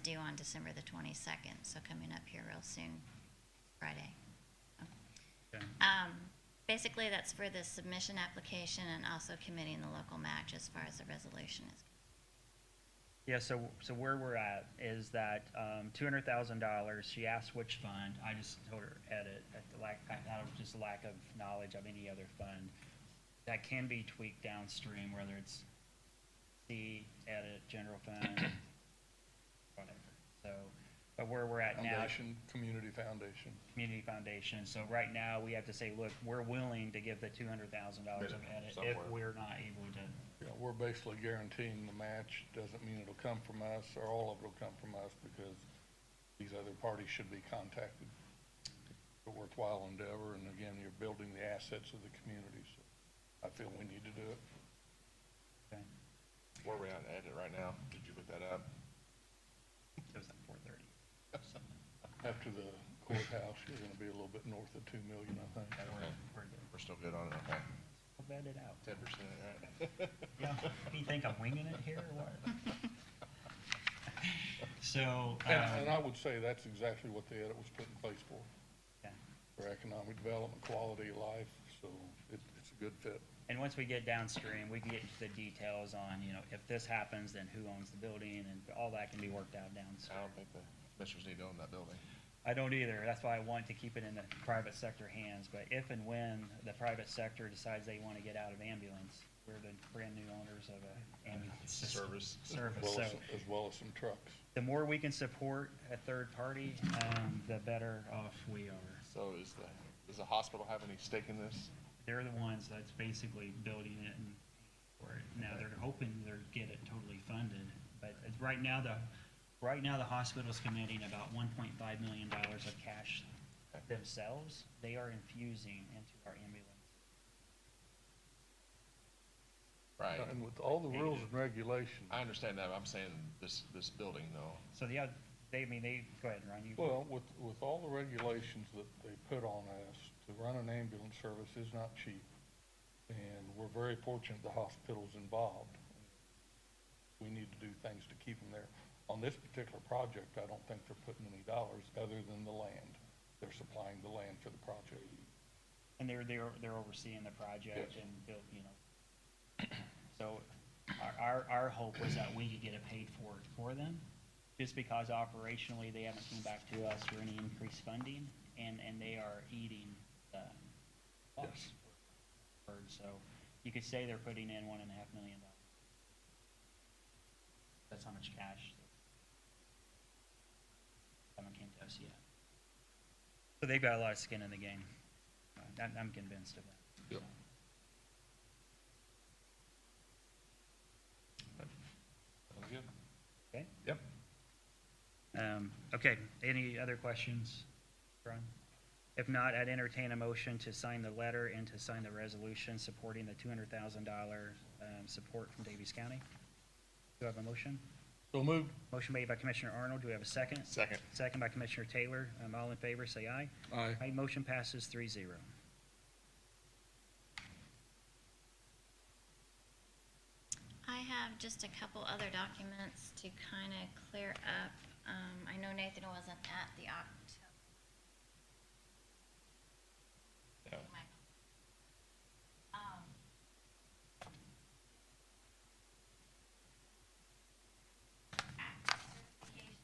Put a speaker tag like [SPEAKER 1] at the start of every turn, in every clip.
[SPEAKER 1] due on December the 22nd, so coming up here real soon, Friday.
[SPEAKER 2] Okay.
[SPEAKER 1] Um, basically, that's for the submission application and also committing the local match as far as the resolution is.
[SPEAKER 2] Yeah, so, so where we're at is that, um, two hundred thousand dollars, she asked which fund, I just told her edit, at the lack, I, out of just lack of knowledge of any other fund. That can be tweaked downstream, whether it's C, edit, general fund, whatever, so, but where we're at now.
[SPEAKER 3] Foundation, community foundation.
[SPEAKER 2] community foundation, so right now, we have to say, look, we're willing to give the two hundred thousand dollars of
[SPEAKER 4] Minimum
[SPEAKER 2] edit if
[SPEAKER 4] somewhere.
[SPEAKER 2] we're not able to.
[SPEAKER 3] You know, we're basically guaranteeing the match, doesn't mean it'll come from us, or all of it'll come from us, because these other parties should be contacted. It's A worthwhile endeavor, and again, you're building the assets of the community, so I feel we need to do it.
[SPEAKER 2] okay,
[SPEAKER 4] Where are we at, edit right now? Did you look that up?
[SPEAKER 2] It was at four thirty.
[SPEAKER 3] After the courthouse, you're gonna be a little bit north of two million, I think.
[SPEAKER 2] We're good.
[SPEAKER 4] We're still good on it, okay.
[SPEAKER 2] I'll vet it out.
[SPEAKER 4] Ten percent, right?
[SPEAKER 2] Yeah, you think I'm winging it here or what? So,
[SPEAKER 3] And, and
[SPEAKER 2] um,
[SPEAKER 3] I would say that's exactly what the edit was put in place for,
[SPEAKER 2] yeah.
[SPEAKER 3] for economic development, quality of life, so it, it's a good fit.
[SPEAKER 2] and once we get downstream, we can get into the details on, you know, if this happens, then who owns the building and all that can be worked out
[SPEAKER 4] I
[SPEAKER 3] Oh.
[SPEAKER 2] downstream.
[SPEAKER 4] don't think the commissioners need to own that building.
[SPEAKER 2] I don't either. That's why I want to keep it in the private sector hands. But if and when the private sector decides they want to get out of ambulance, we're the brand new owners of a ambulance system-
[SPEAKER 4] Service.
[SPEAKER 2] service.
[SPEAKER 3] Well,
[SPEAKER 2] So
[SPEAKER 3] as as well as some trucks.
[SPEAKER 2] the more we can support a third party, um, the better off we are.
[SPEAKER 4] So is the, does the hospital have any stake in this?
[SPEAKER 2] they're the ones that's basically building it and, for it. Now, they're hoping they're get it totally funded, but it's, right now, the, right now, the hospital's committing about one point five million dollars of cash themselves. They are infusing into our ambulance.
[SPEAKER 4] Right.
[SPEAKER 3] And with all the rules and regulations,
[SPEAKER 4] Uh, I understand that, but I'm saying this, this building though.
[SPEAKER 2] So the, oth- they, I mean, they, go ahead, Ron, you.
[SPEAKER 3] well, with, with all the regulations that they put on us, to run an ambulance service is not cheap. And we're very fortunate the hospital's involved. We need to do things to keep them there. On this particular project, I don't think they're putting any dollars other than the land. They're supplying the land for the project.
[SPEAKER 2] And they're, they're, they're overseeing the project
[SPEAKER 3] Yes.
[SPEAKER 2] and built, you know. So our, our, our hope was that we could get it paid for for them, just because operationally, they haven't come back to us for any increased funding, and, and they are eating the costs. So you could say they're putting in one and a half million dollars. That's how much cash. Haven't came to us yet. So they've got a lot of skin in the game. Uh, I'm, I'm convinced of that.
[SPEAKER 3] Yep.
[SPEAKER 4] Sounds good.
[SPEAKER 2] Okay?
[SPEAKER 4] Yep.
[SPEAKER 2] Um, okay, any other questions, Brian? If not, I'd entertain a motion to sign the letter and to sign the resolution supporting the two hundred thousand dollar, um, support from Davies County. Do I have a motion?
[SPEAKER 3] So moved.
[SPEAKER 2] Motion made by Commissioner Arnold, do we have a second?
[SPEAKER 4] Second.
[SPEAKER 2] Second by Commissioner Taylor, um, all in favor, say aye.
[SPEAKER 3] Aye.
[SPEAKER 2] Aye, motion passes three zero.
[SPEAKER 1] I have just a couple other documents to kind of clear up. Um, I know Nathan wasn't at the October.
[SPEAKER 4] Yeah.
[SPEAKER 1] Um, act certification.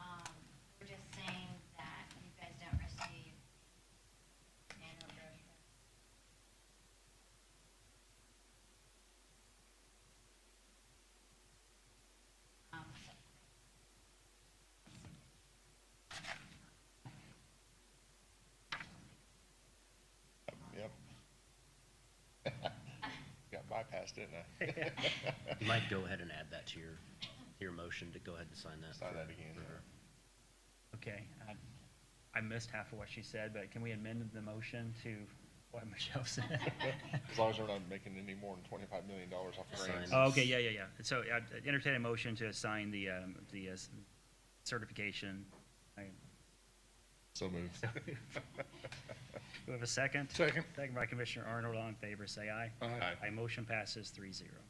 [SPEAKER 1] Um, we're just saying that you guys don't receive annual brochure. Um,
[SPEAKER 4] Yep. Got bypassed, didn't I?
[SPEAKER 5] You might go ahead and add that to your, to your motion to go ahead and sign that.
[SPEAKER 4] Sign
[SPEAKER 5] for-
[SPEAKER 4] that again,
[SPEAKER 5] for
[SPEAKER 4] yeah.
[SPEAKER 5] her.
[SPEAKER 2] Okay, I, I missed half of what she said, but can we amend the motion to what Michelle said?
[SPEAKER 4] As long as we're not making any more than twenty-five million dollars off the grants.
[SPEAKER 5] Sign.
[SPEAKER 2] Oh, Okay, yeah, yeah, yeah. So I entertain a motion to assign the, um, the uh, certification. I-
[SPEAKER 4] So moved.
[SPEAKER 2] Do we have a second?
[SPEAKER 3] Second.
[SPEAKER 2] Second by Commissioner Arnold, all in favor, say aye.
[SPEAKER 3] Aye.
[SPEAKER 2] Aye, motion passes three zero.